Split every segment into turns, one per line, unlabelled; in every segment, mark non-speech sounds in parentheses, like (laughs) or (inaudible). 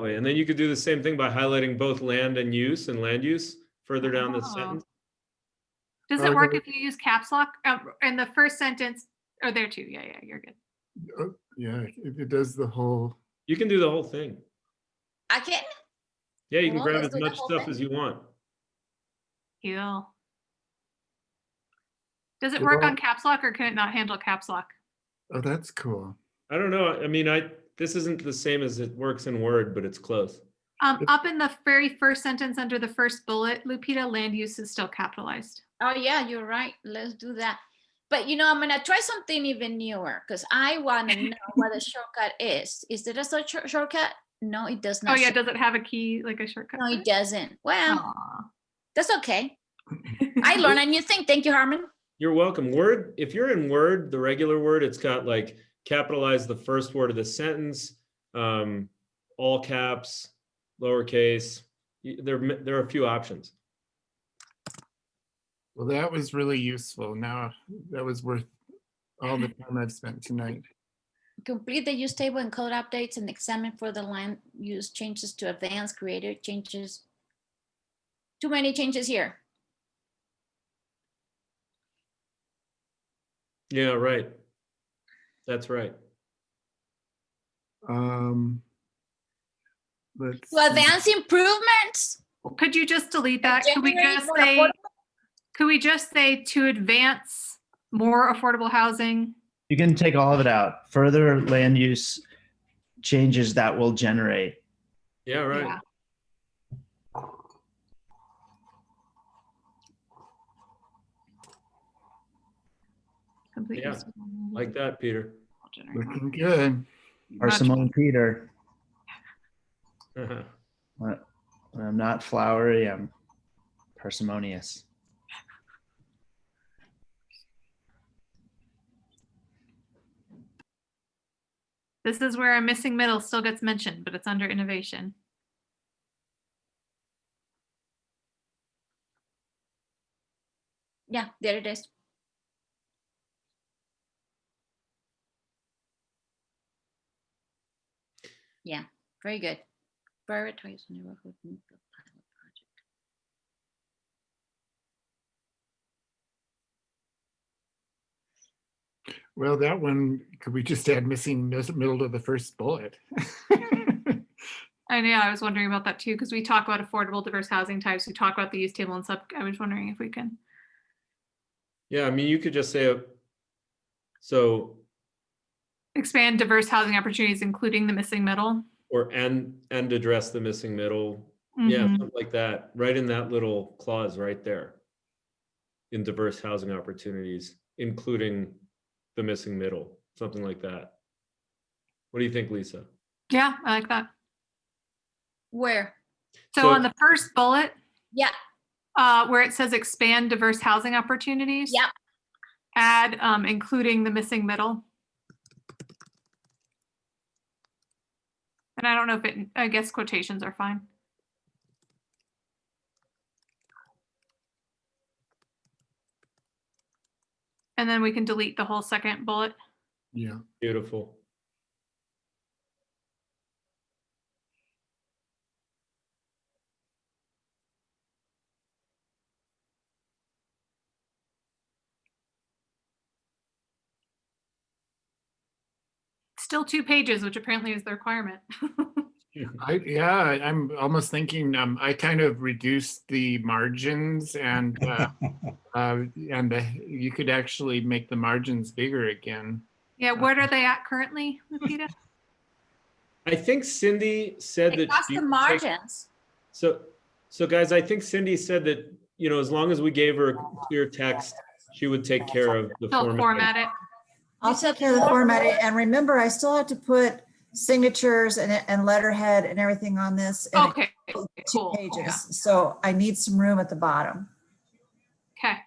Oh, yeah, and then you could do the same thing by highlighting both land and use and land use further down the
Ah.
Oh.
sentence.
Does
Uh,
it work
the-
if you use caps lock Um, in the first sentence? Oh, there too. Yeah, yeah, you're good.
Uh, Yeah, it, it does the whole,
You can do the whole thing.
I can.
Yeah, you can
Well,
grab
let's
as
do the
much
whole
stuff
thing.
as you want.
Heal. Does it
It
work on
won't-
caps lock or can it not handle caps lock?
oh, that's cool.
I don't know. I mean, I, this isn't the same as it works in Word, but it's close.
Um,
It-
up in the very first sentence under the first bullet, Lupita, land use is still capitalized.
Oh yeah, you're right. Let's do that. But you know, I'm gonna try something even newer because
(laughs)
I wanna know what a shortcut is. Is there a such shor- shortcut? No, it does
Oh
not.
yeah,
say-
does it Oh. have a key, like a shortcut?
No,
for
it
it? (laughs)
doesn't. Well,
Aw.
that's okay.
(laughs)
I learn a new thing. Thank you, Harmon.
You're welcome. Word, if you're in Word, the regular Word, it's got like capitalize the first word of the sentence, um, all caps, lowercase. Y- There, are m- there are a few options.
Well, that was really useful. Now, that was worth all the time I've spent tonight.
Complete the use table and code updates and examine for the land use changes to advanced creator changes. Too many changes here.
Yeah, right. That's right.
Um, let's.
To
see.
advance improvements.
Could you just delete that? Could we
generate
just
more
say,
affordable-
could we just say to advance more affordable housing?
You can take all of it out. Further land use changes that will generate.
Yeah, right.
Yeah. Complete
Yeah,
use of all
Like that, Peter. (laughs)
available generated
Looking good.
Or
Much-
Simone Peter.
Uh-huh.
I'm not flowery. I'm parsimonious.
This is where a missing middle still gets mentioned, but it's under innovation.
Yeah, there it is. Yeah, very good. Prioritize neighborhood. new build pilot project.
Well, that one, could we just add missing mis- middle to the first bullet? (laughs)
I know, I was wondering about that too, because we talk about affordable diverse housing types, we talk about the use table and sub, I was wondering if we can.
Yeah, I mean, you could just say, uh, so,
Expand diverse housing opportunities, including the missing middle.
or and, and address the missing middle. Yeah,
Mhm.
something like that, right in that little clause right there. In diverse housing opportunities, including the missing middle, something like that. What do you think, Lisa?
Yeah, I like that.
Where?
So
So-
on the first bullet,
Yeah,
uh, where it says expand diverse housing opportunities.
Yep.
Add, um, including the missing middle. And I don't know if it, I guess quotations are fine. And then we can delete the whole second bullet.
Yeah,
Beautiful.
Still two pages, which apparently is the requirement. (laughs)
I, yeah, I'm almost thinking, um, I kind of reduced the margins and, uh, uh, and the, you could actually make the margins bigger again.
Yeah, what are they at currently, Lupita?
I think Cindy said that.
across
she
the
would take-
margins.
So, so guys, I think Cindy said that, you know, as long as we gave her clear text, she would take care of (laughs) the
Still
format.
format it.
I'll
said
take care of the
format.
format. And remember, I still have to put signatures and, and letterhead and everything on this. and
Okay,
it's Two
cool. Yeah.
pages, so I need some room at the bottom.
Okay.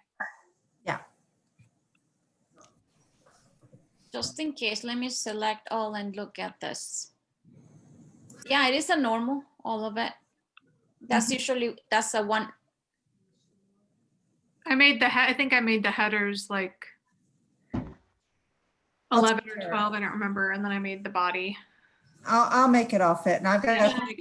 Just in case, let me select all and look at this. Yeah, it is a normal, all of it. That's usually, that's a one,
I made the, he- I think I made the headers like
I'll
11
take
or
care.
12, I don't remember, and then I made the body.
I'll, I'll make it all fit and I've got
Yeah.
enough